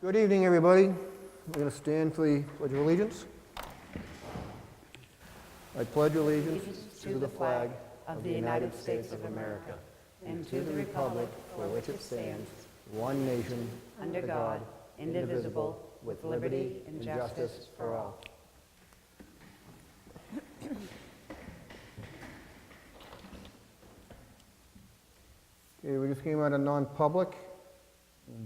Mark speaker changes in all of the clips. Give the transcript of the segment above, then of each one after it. Speaker 1: Good evening, everybody. We're going to stand for the Pledge of Allegiance. I pledge allegiance to the flag of the United States of America and to the republic for which it stands, one nation, under God, indivisible, with liberty and justice for all. Okay, we just came out of non-public.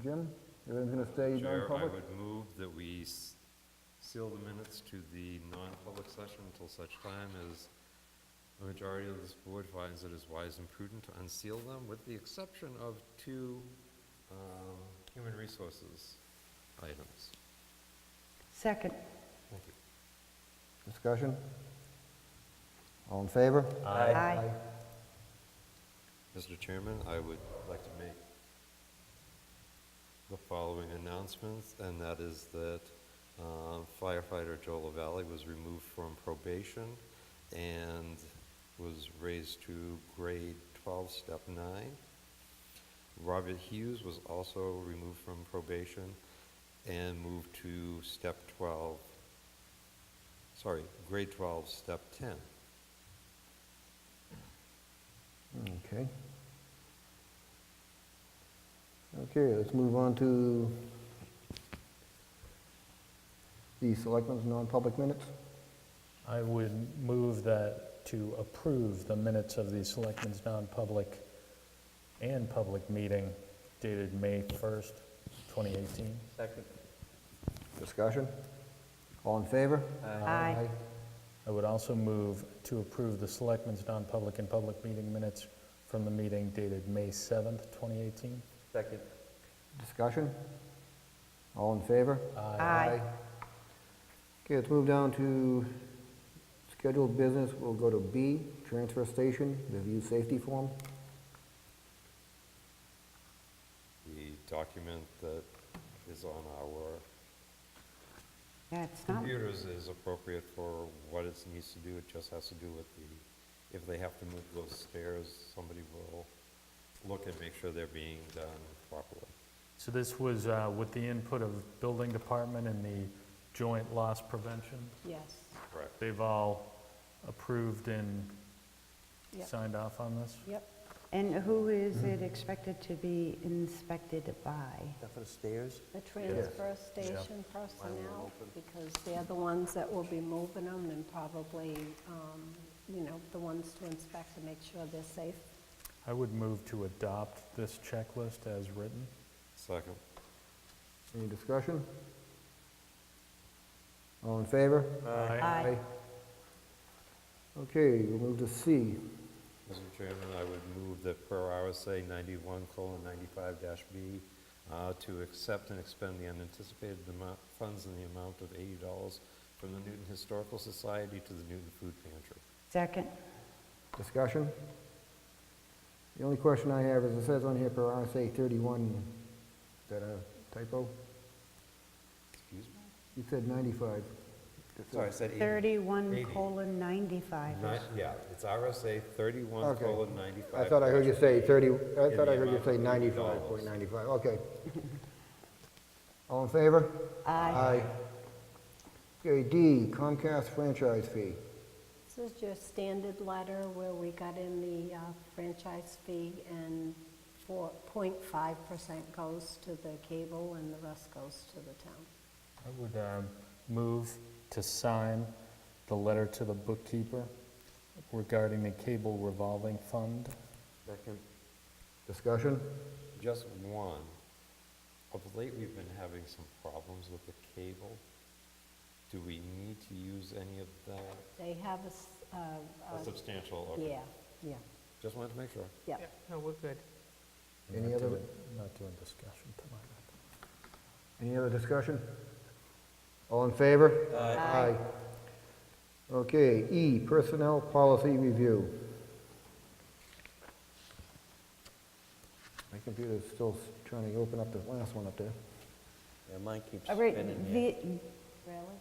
Speaker 1: Jim, everyone's going to stay
Speaker 2: Chair, I
Speaker 1: non-public?
Speaker 2: would move that we s- seal the minutes to the non-public session until such time as the majority of this board finds it is wise and prudent to unseal them, with the exception of two um, human resources items.
Speaker 3: Second.
Speaker 2: Thank you.
Speaker 1: Discussion? All in favor?
Speaker 3: Aye.
Speaker 2: Mr. Chairman, I would like to make the following announcements, and that is that um, firefighter Joe Lavalley was removed from probation and was raised to grade 12, step 9. Robert Hughes was also removed from probation and moved to step 12, sorry, grade 12, step 10.
Speaker 1: Okay. Okay, let's move on to the selectmen's non-public minutes.
Speaker 4: I would move that to approve the minutes of the Selectmen's non-public and public meeting dated May 1st, 2018.
Speaker 1: Discussion? All in favor?
Speaker 3: Aye.
Speaker 4: I would also move to approve the Selectmen's non-public and public meeting minutes from the meeting dated May 7th, 2018.
Speaker 5: Second.
Speaker 1: Discussion? All in favor?
Speaker 3: Aye.
Speaker 1: Okay, let's move down to scheduled business. We'll go to B, transfer station, review safety form.
Speaker 2: the document that is on our
Speaker 3: Yeah, it's not,
Speaker 2: computers is appropriate for what it needs to do. It just has to do with the, if they have to move those stairs, somebody will look and make sure they're being done properly.
Speaker 4: So this was uh, with the input of Building Department and the Joint Loss Prevention.
Speaker 3: yes.
Speaker 2: Correct.
Speaker 4: They've all approved and
Speaker 3: Yep.
Speaker 4: signed off on this?
Speaker 3: Yep. And who is it expected to be inspected by?
Speaker 5: That for the stairs?
Speaker 6: the transfer station personnel, because they're the ones that will be moving them and probably, um, you know, the ones to inspect to make sure they're safe.
Speaker 4: I would move to adopt this checklist as written.
Speaker 2: Second.
Speaker 1: Any discussion? All in favor?
Speaker 4: Aye.
Speaker 1: Okay, we'll move to C,
Speaker 2: Mr. Chairman, I would move that per RSA ninety-one colon ninety-five dash B, uh, to accept and expend the unanticipated amount, funds in the amount of eighty dollars from the Newton Historical Society to the Newton Food Pantry.
Speaker 3: Second?
Speaker 1: discussion. The only question I have is, it says on here per RSA 31, is that a typo?
Speaker 2: Excuse me?
Speaker 1: You said 95.
Speaker 2: Sorry, I said eighty.
Speaker 3: 31
Speaker 2: Eighty.
Speaker 3: colon 95.
Speaker 2: Ni- Yeah, it's RSA thirty-one
Speaker 1: Okay.
Speaker 2: colon ninety-five.
Speaker 1: I thought I heard you say 30, I
Speaker 2: In
Speaker 1: thought
Speaker 2: the
Speaker 1: I heard you
Speaker 2: amount
Speaker 1: say
Speaker 2: of $90.
Speaker 1: 95.95, okay. All in favor? Aye.
Speaker 3: Aye.
Speaker 1: Okay, D, Comcast franchise fee.
Speaker 6: This is your standard letter where we got in the uh, franchise fee and 4.5% goes to the cable and the rest goes to the town.
Speaker 4: I would um, move to sign the letter to the bookkeeper regarding the cable revolving fund.
Speaker 5: Second.
Speaker 1: Discussion?
Speaker 2: Just one. Of late, we've been having some problems with the cable. Do we need to use any of that?
Speaker 6: They have a, s- uh,
Speaker 2: A
Speaker 6: uh,
Speaker 2: substantial, okay.
Speaker 6: yeah, yeah,
Speaker 2: Just wanted to make sure.
Speaker 6: yeah.
Speaker 4: I'm
Speaker 1: Any
Speaker 4: not
Speaker 1: other-
Speaker 4: doing- Not doing discussion tonight.
Speaker 1: Any other discussion? All in favor?
Speaker 6: Aye.
Speaker 1: Okay, E, Personnel Policy Review. My computer's still s- trying to open up the last one up there.
Speaker 5: Yeah, mine keeps
Speaker 3: All right,
Speaker 5: spinning here.
Speaker 3: the-
Speaker 6: Really?